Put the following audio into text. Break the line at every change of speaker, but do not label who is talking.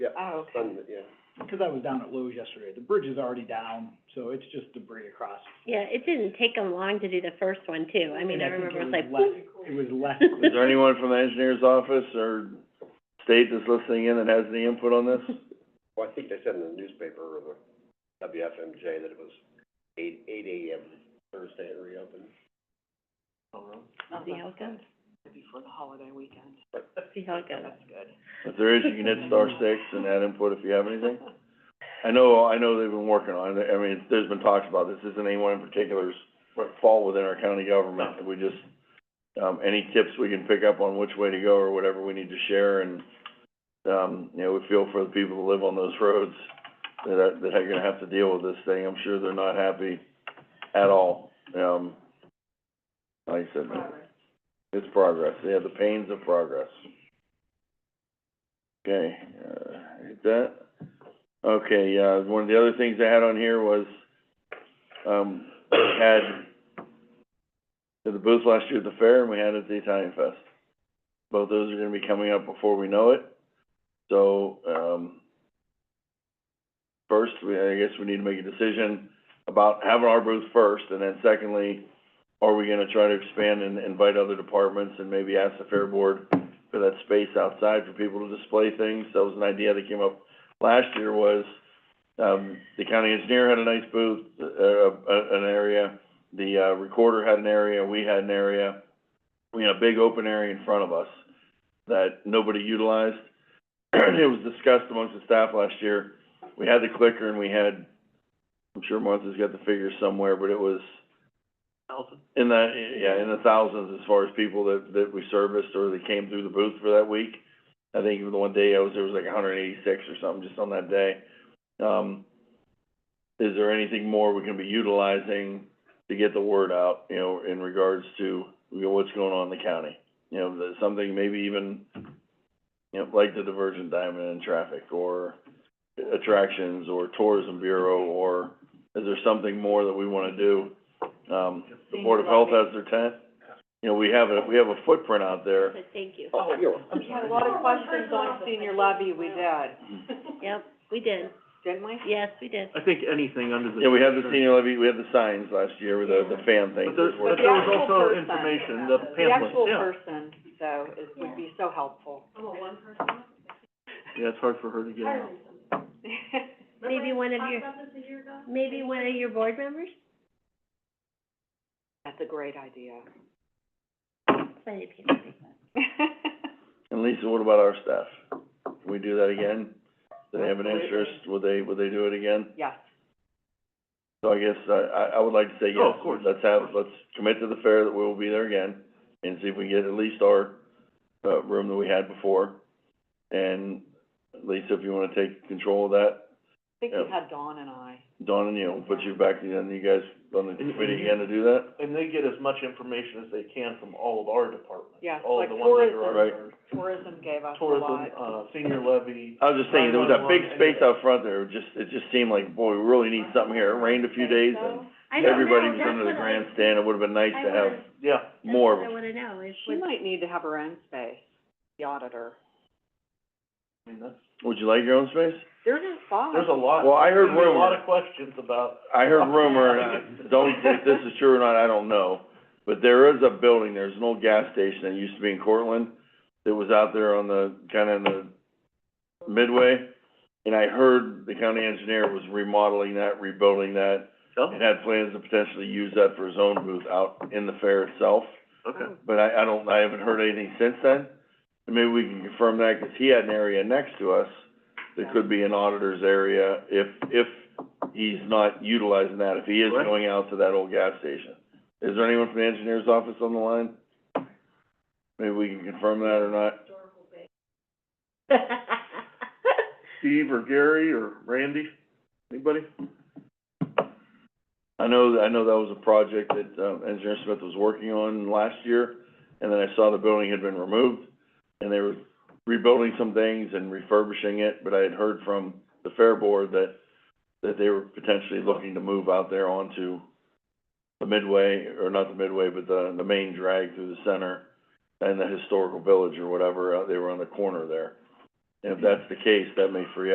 Oh, okay.
Sunday, yeah.
Cause I was down at Lowe's yesterday, the bridge is already down, so it's just debris across.
Yeah, it didn't take them long to do the first one too, I mean, I remember it was like,
And I think it was less, it was
Is
less,
Is there anyone from the engineer's office or state that's listening in that has any input on this?
Well, I think they said in the newspaper or the WFMJ that it was eight, eight AM Thursday it reopened.
we'll see how it goes,
Before the holiday weekend.
see how it goes.
That's good.
If there is, you can hit star six and add input if you have anything. I know, I know they've been working on it, I mean, there's been talks about this, isn't anyone in particular's fall within our county government. We just, um, any tips we can pick up on which way to go or whatever we need to share and, um, you know, we feel for the people that live on those roads that are, that are gonna have to deal with this thing. I'm sure they're not happy at all. Um, like I said, it's progress, yeah, the pains of progress. Okay, uh, hit that. Okay, uh, one of the other things I had on here was, um, we had did the booth last year at the fair and we had it at the Italian Fest. Both those are gonna be coming up before we know it. So, um, first, we, I guess we need to make a decision about having our booth first and then secondly, are we gonna try to expand and invite other departments and maybe ask the fair board for that space outside for people to display things? That was an idea that came up last year was, um, the county engineer had a nice booth, uh, uh, an area, the, uh, recorder had an area, we had an area. We had a big open area in front of us that nobody utilized. It was discussed amongst the staff last year. We had the clicker and we had, I'm sure Martha's got the figures somewhere, but it was in the, yeah, in the thousands as far as people that, that we serviced or that came through the booth for that week. I think even the one day I was, there was like hundred and eighty-six or something just on that day. Um, is there anything more we can be utilizing to get the word out, you know, in regards to, you know, what's going on in the county? You know, that something maybe even, you know, like the divergent diamond and traffic or attractions or tourism bureau or is there something more that we wanna do? Um, the Board of Health has their tent. You know, we have a, we have a footprint out there.
But thank you,
Oh, you're welcome.
We had a lot of questions on senior levy, we did,
Mm-hmm.
yep, we did,
didn't we?
yes, we did.
I think anything under the.
Yeah, we had the senior levy, we had the signs last year with the, the fan thing.
But there, but
the
there was
actual
also
person.
information, the
The
pamphlets,
actual
yeah.
person, though, is, would be so helpful.
Yeah, it's hard for her to get out.
Maybe one of your, maybe one of your board members?
That's a great idea.
Plenty of people think that.
And Lisa, what about our staff? Can we do that again? Do they have an interest? Would they, would they do it again?
Yes,
So I guess, I, I, I would like to say yes.
Oh, of course.
Let's have, let's commit to the fair that we will be there again and see if we get at least our, uh, room that we had before. And Lisa, if you wanna take control of that,
I think we
Yeah.
had Dawn and I.
Dawn and you, we'll put you back, and you guys on the
And-
committee again to do that?
And they get as much information as they can from all of our departments.
Yeah,
All
like
of the ones that are
tourism.
under
Tourism gave us a lot.
tourism, uh, senior levy.
I was just saying, there was that big
911,
space out front there, it just, it just seemed like, boy, we really need something here. It rained a few days and
I don't know,
everybody
that's what
was
I.
under the grandstand. It would've been nice
I
to have
wanna-
Yeah,
more of
That's
them.
what I wanna know, is
She
what,
might need to have her own space, the auditor.
I mean, that's,
Would you like your own space?
There's a five.
there's a lot.
Well, I heard
there's a lot
rumor.
of questions about,
I heard rumor, and I don't, if this is true or not, I don't know, but there is a building, there's an old gas station that used to be in Cortland that was out there on the, kinda in the midway, and I heard the county engineer was remodeling that, rebuilding that,
oh,
and had plans to potentially use that for his own booth out in the fair itself.
okay.
but I, I don't, I haven't heard anything since then. And maybe we can confirm that, 'cause he had an area next to us that could be an auditor's area if, if he's not utilizing that, if he is
Right.
going out to that old gas station. Is there anyone from the engineer's office on the line? Maybe we can confirm that or not.
Steve or Gary or Randy, anybody?
I know, I know that was a project that, um, Engineer Smith was working on last year, and then I saw the building had been removed, and they were rebuilding some things and refurbishing it, but I had heard from the Fair Board that, that they were potentially looking to move out there onto the midway, or not the midway, but the, the main drag through the center and the historical village or whatever, uh, they were on the corner there. And if that's the case, that may free up.